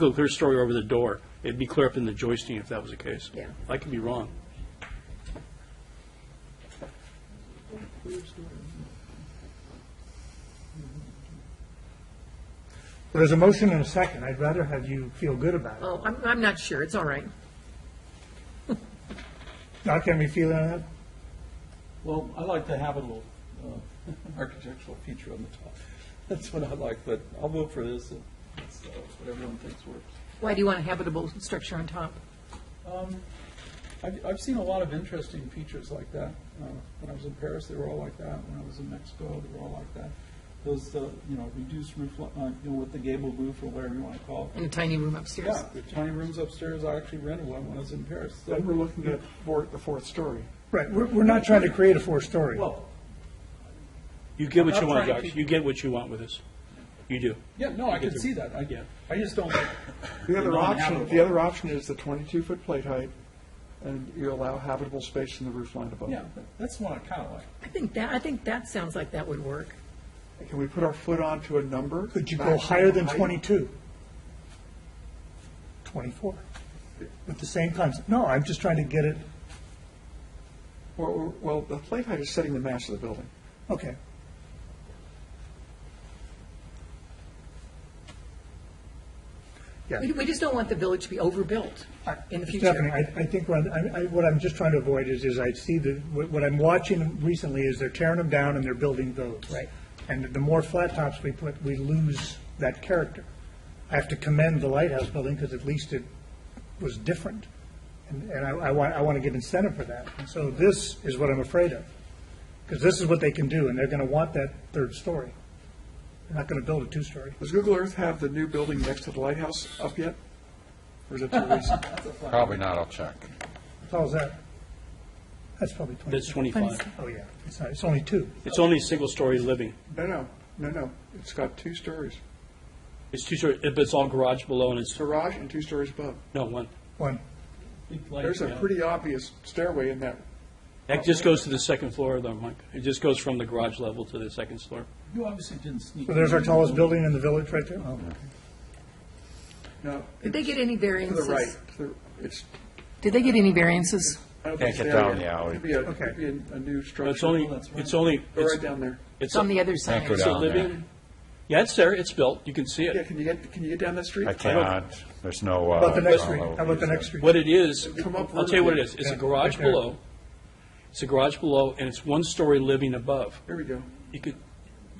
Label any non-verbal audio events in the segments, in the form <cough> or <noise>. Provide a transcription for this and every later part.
look at her story over the door. It'd be clear up in the joisting if that was the case. Yeah. I could be wrong. There's a motion and a second. I'd rather have you feel good about it. Oh, I'm, I'm not sure, it's all right. Not gonna be feeling that? Well, I like to have a little uh, <laughs> architectural feature on the top. <laughs> That's what I like, but I'll vote for this, and it's, uh, it's what everyone thinks works. Why do you want a habitable structure on top? I've, I've seen a lot of interesting features like that. Uh, When I was in Paris, they were all like that. When I was in Mexico, they were all like that. Those, uh, you know, reduced roof, li- uh, you know, with the gable roof or whatever you want to call it. In a tiny room upstairs? Yeah, the tiny rooms upstairs, I actually rented one when I was in Paris. So- Then we're looking at four, the fourth story. Right, we're, we're not trying to create a four-story. Well, You get what I'm you want, trying to- Josh. You get what you want with this. You do. yeah, no, I can see that. I, Yeah. I just don't, The other They're not option, the habitable. other option is the twenty-two foot plate height, and you allow habitable space in the roof line above. yeah, that- that's the one I kind of like. I think that, I think that sounds like that would work. Can we put our foot onto a number? Could you go Maximum higher than height? 22? 24? With the same concept? No, I'm just trying to get it, Or- or- Well, the plate height is setting the mass of the building. okay. Yeah. We, we just don't want the village to be overbuilt in the future. Stephanie, I, I think what, I, I- what I'm just trying to avoid is, is I see the, what what I'm watching recently is they're tearing them down and they're building those. Right. And the more flat tops we put, we lose that character. I have to commend the Lighthouse Building because at least it was different. And, and I, I want, I want to give incentive for that. And so this is what I'm afraid of. Because this is what they can do and they're going to want that third story. They're not going to build a two-story. Does Google Earth have the new building next to the lighthouse up yet? Or is it too <laughs> recent? Probably not, I'll check. How's that? That's probably 20. That's 25. Oh, yeah. It's not, it's only two. It's only a single-story living. No, no, no, no. It's got two stories, It's two stories, but it's all garage below and it's, garage and two stories above. no, one. One. Big light, There's a yeah. pretty obvious stairway in that. That just goes to the second floor though, Mike. It just goes from the garage level to the second floor. You obviously didn't sneak. So there's our in. tallest building in the village right there? Oh, No, Did they get any to the variances? right. to the- It's, Did they get any variances? I don't Can't think it's get there down yet. the alley. It'd be a, Okay. it'd be a- a new No, structure. It's only, it's only, Go right it's, down there. it's It's on the a other Can't side. go it's a down there. living, yeah, it's there, it's built, you can see Yeah, it. can you get, can you get down that street? I cannot, there's no. uh, How about the next street? How about the next street? What it is, Come up I'll tell you what it is, it's Yeah, a garage right there. below, it's a garage below, and it's one-story living above. Here we go. You could,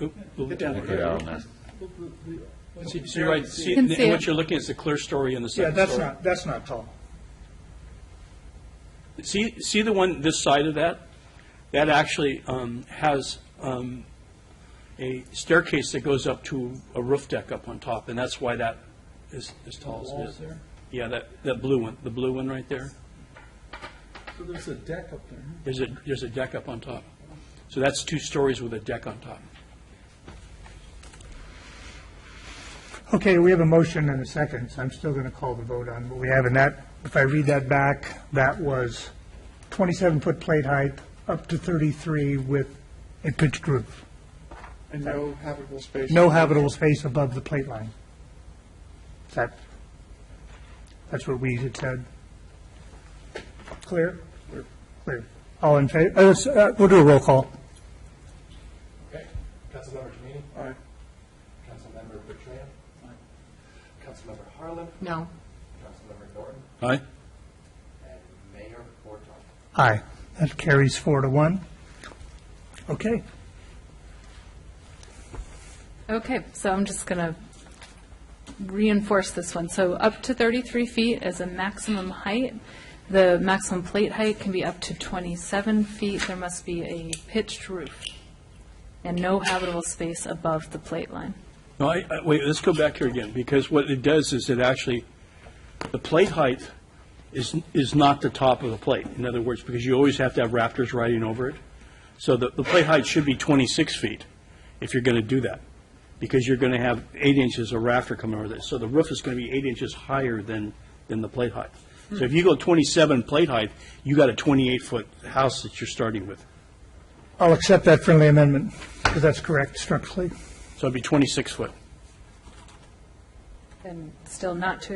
oop, Get oop. down Get there. down there. See- see right, see, can and see what it. you're looking is the clear story in the Yeah, second that's story. not, that's not tall. See, see the one, this side of that? That actually um, has um, a staircase that goes up to a roof deck up on top, and that's why that is as tall as it Walls is. there. Yeah, that, that blue one, the blue one right there, So there's a deck up there. there's a, there's a deck up on top. So that's two stories with a deck on top. Okay, we have a motion and a second, so I'm still going to call the vote on what we have in that. If I read that back, that was 27-foot plate height, up to 33 with a pitched roof. And no habitable space. No habitable space above the plate line. Is that, that's what we had said? Clear? Clear. All in favor, uh, we'll do a roll call. Okay. Councilmember Comini? Aye. Councilmember Bertrand? Councilmember Harlan? No. Councilmember Norton? Aye? And Mayor Borton. Aye. That carries four to one. Okay. Okay, so I'm just going to reinforce this one. So up to 33 feet is a maximum height. The maximum plate height can be up to 27 feet. There must be a pitched roof and no habitable space above the plate line. No, I, I, wait, let's go back here again, because what it does is it actually, the plate height is, is not the top of the plate, in other words, because you always have to have rafters riding over it. So the, the plate height should be 26 feet, if you're going to do that, because you're going to have eight inches of rafter coming over this. So the roof is going to be eight inches higher than, than the plate height. So if you go 27 plate height, you got a 28-foot house that you're starting with. I'll accept that friendly amendment, because that's correct structurally. So it'd be 26 foot. and still not to